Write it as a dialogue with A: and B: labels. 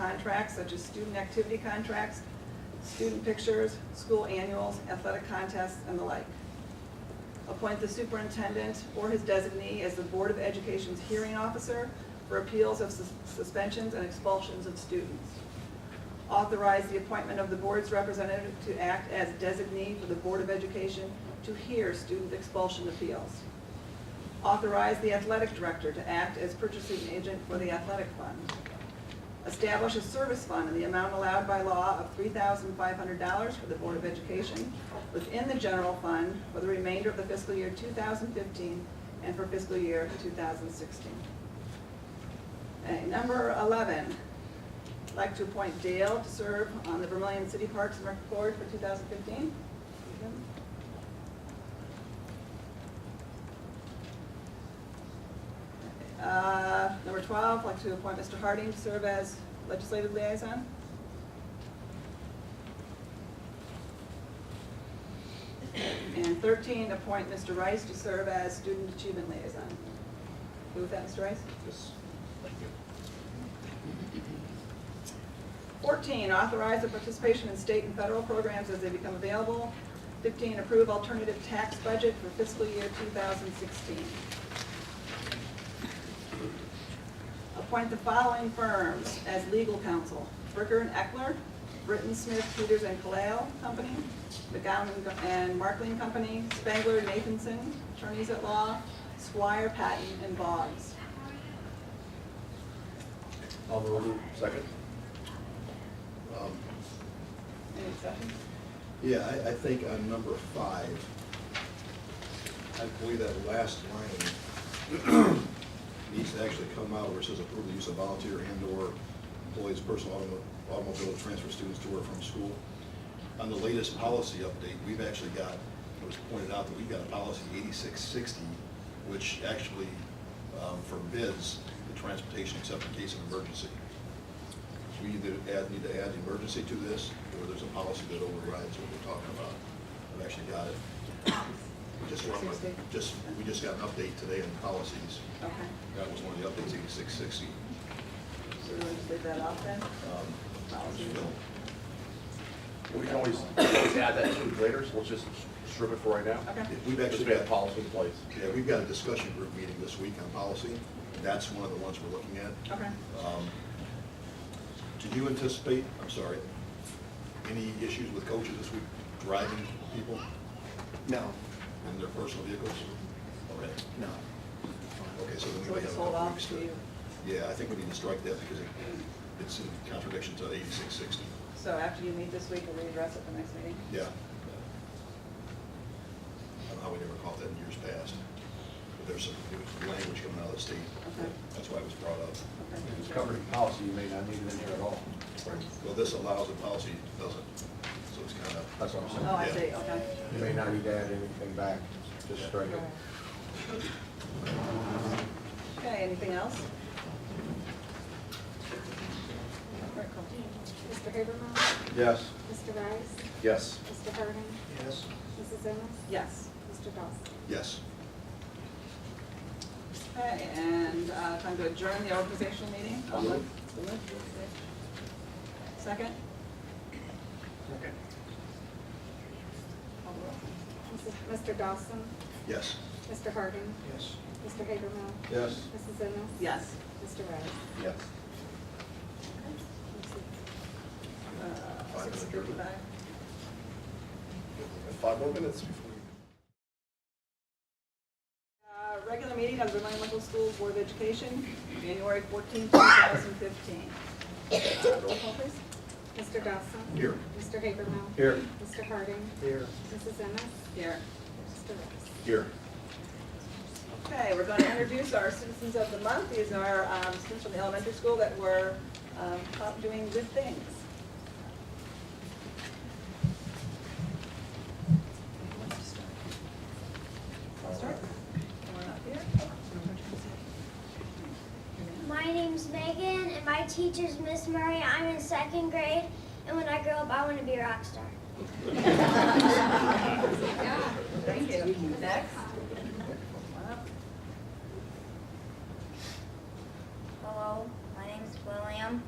A: contracts such as student activity contracts, student pictures, school annuals, athletic contests, and the like. Appoint the superintendent or his designee as the Board of Education's hearing officer for appeals of sus- suspensions and expulsions of students. Authorize the appointment of the board's representative to act as designee for the Board of Education to hear student expulsion appeals. Authorize the athletic director to act as purchasing agent for the athletic fund. Establish a service fund in the amount allowed by law of $3,500 for the Board of Education within the general fund for the remainder of the fiscal year 2015 and for fiscal year 2016. Okay, Number 11, I'd like to appoint Dale to serve on the Vermillion City Parks and Rec Board for 2015. Uh, Number 12, I'd like to appoint Mr. Harding to serve as legislative liaison. And 13, appoint Mr. Rice to serve as student achievement liaison. Move with that, Mr. Rice?
B: Yes. Thank you.
A: 14, authorize the participation in state and federal programs as they become available. 15, approve alternative tax budget for fiscal year 2016. Appoint the following firms as legal counsel. Bricker and Eckler, Britton Smith, Peters and Kalale Company, McGowan and Markling Company, Spangler, Nathanson, attorneys at law, Squire, Patton, and Boggs.
B: I'll move. Second. Um,
A: Any discussion?
B: Yeah, I, I think on number five, I believe that last line needs to actually come out where it says approve the use of volunteer and/or employees' personal automo- automobile to transfer students to or from school. On the latest policy update, we've actually got, it was pointed out that we've got a policy eighty-six sixty, which actually um, forbids the transportation except in case of emergency. We either add, need to add the emergency to this, or there's a policy that overrides what we're talking about. I've actually got it. Just, one more-
A: 8660.
B: just, we just got an update today on policies.
A: Okay,
B: That was one of the updates, eighty-six sixty. Um,
A: so we'll just leave that off then? Policies.
C: We can always always add that to it later, so let's just strip it for right now.
A: Okay.
B: We've
C: Because
B: actually
C: we have
B: got,
C: policy in place.
B: yeah, we've got a discussion group meeting this week on policy. and That's one of the ones we're looking at.
A: Okay.
B: Um, Do you anticipate, I'm sorry, any issues with coaches this week driving people
D: No,
B: in their personal vehicles? Okay,
D: no.
B: okay, so
A: So
B: then we
A: we
B: may have
A: just
B: a
A: hold
B: couple
A: off
B: weeks
A: to
B: to.
A: you.
B: Yeah, I think we need to strike that because it- it's in contradiction to eighty-six sixty.
A: So after you meet this week, we'll readdress it the next meeting?
B: Yeah. I don't know how we never caught that in years past, but there's some new language coming out of the state.
A: Okay.
B: That's why it was brought up.
A: Okay.
C: If it's covered in policy, you may not need it in here at all.
B: Well, this allows it, policy doesn't, so it's kind of,
C: That's what I'm saying.
A: Oh, I see,
B: Yeah.
A: okay.
C: You may not need to add anything back, just strike it.
A: Okay, anything else? Very cool.
E: Mr. Habermill,
C: Yes.
E: Mr. Rice,
C: Yes.
E: Mr. Harding,
B: Yes.
E: Mrs. Ennis,
A: Yes.
E: Mr. Dawson.
B: Yes.
A: Okay, and uh, time to adjourn the organizational meeting.
B: I'll move.
A: So moved. Second?
B: Okay.
A: Call the roll.
E: Mrs. Mr. Dawson,
B: Yes.
E: Mr. Harding,
B: Yes.
E: Mr. Habermill,
C: Yes.
E: Mrs. Ennis.
A: Yes.
E: Mr. Rice.
C: Yes.
A: Uh,
B: Five
A: Six
B: to adjourn.
A: fifty-five.
C: Five more minutes before we.
A: Uh, Regular meeting of the Vermillion Local School Board of Education, January fourteenth, two thousand fifteen. Roll call, please.
E: Mr. Dawson.
B: Here.
E: Mr. Habermill.
C: Here.
E: Mr. Harding,
C: Here.
E: Mrs. Ennis,
A: Here.
E: Mr. Rice.
C: Here.
A: Okay, we're going to introduce our citizens of the month. These are um, students from the elementary school that were um, caught doing good things. Start. Come on up here.
F: My name's Megan, and my teacher's Miss Murray. I'm in second grade, and when I grow up, I want to be a rock star.
A: Thank you. Next. Come on up.
G: Hello, my name is William.